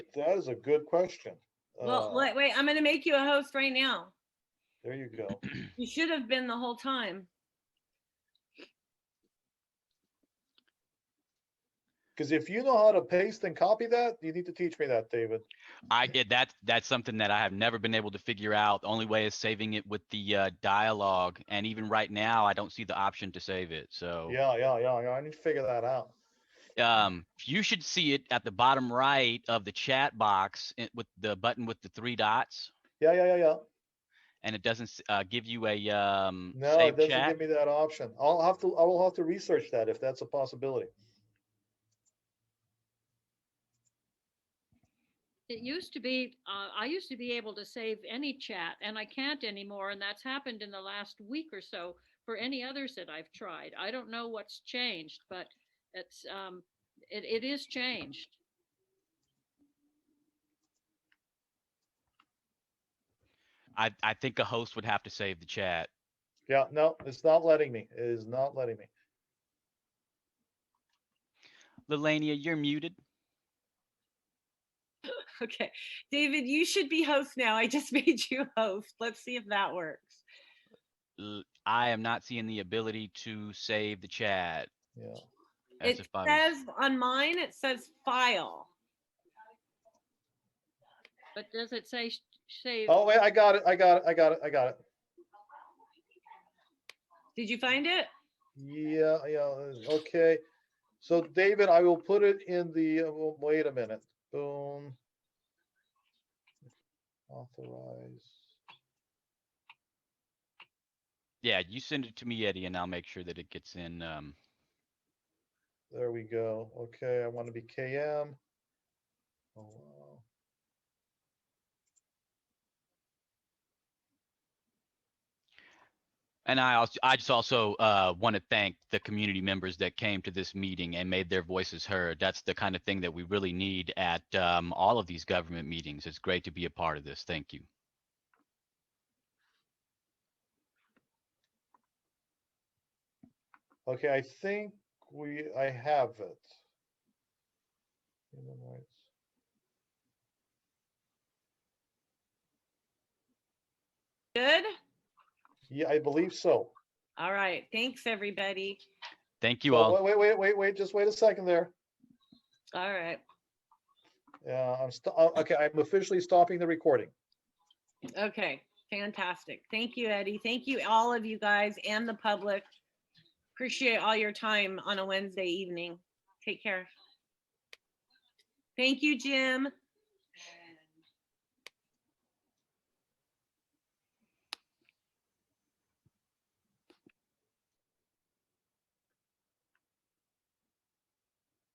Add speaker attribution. Speaker 1: that is a good question.
Speaker 2: Well,
Speaker 1: Uh,
Speaker 2: wait, wait, I'm gonna make you a host right now.
Speaker 1: There you go.
Speaker 2: You should have been the whole time.
Speaker 1: Because if you know how to paste and copy that, you need to teach me that, David.
Speaker 3: I get that. That's something that I have never been able to figure out. The only way is saving it with the uh, dialogue, and even right now, I don't see the option to save it. So,
Speaker 1: Yeah, yeah, yeah, yeah. I need to figure that out.
Speaker 3: um, you should see it at the bottom right of the chat box i- with the button with the three dots,
Speaker 1: Yeah, yeah, yeah, yeah.
Speaker 3: and it doesn't s- uh, give you a um,
Speaker 1: No, it
Speaker 3: save
Speaker 1: doesn't
Speaker 3: chat.
Speaker 1: give me that option. I'll have to, I will have to research that if that's a possibility.
Speaker 4: It used to be, uh, I used to be able to save any chat and I can't anymore. And that's happened in the last week or so for any others that I've tried. I don't know what's changed, but it's, um, it, it is changed.
Speaker 3: I, I think a host would have to save the chat.
Speaker 1: Yeah, no, it's not letting me. It is not letting me.
Speaker 3: Lelania, you're muted.
Speaker 2: Okay, David, you should be host now. I just made you host. Let's see if that works.
Speaker 3: L- I am not seeing the ability to save the chat.
Speaker 1: Yeah.
Speaker 2: It
Speaker 3: as if I was-
Speaker 2: says on mine, it says file.
Speaker 4: But does it say, sh- save?
Speaker 1: Oh, wait, I got it. I got it. I got it. I got it.
Speaker 2: Did you find it?
Speaker 1: Yeah, yeah, okay. So David, I will put it in the, uh, wa- wait a minute, boom. Authorize.
Speaker 3: Yeah, you send it to me, Eddie, and I'll make sure that it gets in. Um,
Speaker 1: There we go. Okay, I want to be KM. Oh, wow.
Speaker 3: and I also, I just also uh, want to thank the community members that came to this meeting and made their voices heard. That's the kind of thing that we really need at um, all of these government meetings. It's great to be a part of this. Thank you.
Speaker 1: Okay, I think we, I have it. Human rights.
Speaker 2: Good?
Speaker 1: Yeah, I believe so.
Speaker 2: All right, thanks, everybody.
Speaker 3: Thank you
Speaker 1: Oh,
Speaker 3: all.
Speaker 1: Wait, wait, wait, wait, wait, just wait a second there.
Speaker 2: All right,
Speaker 1: Yeah, I'm, sto- oh, okay, I'm officially stopping the recording.
Speaker 2: okay, fantastic. Thank you, Eddie. Thank you, all of you guys and the public. Appreciate all your time on a Wednesday evening. Take care. Thank you, Jim.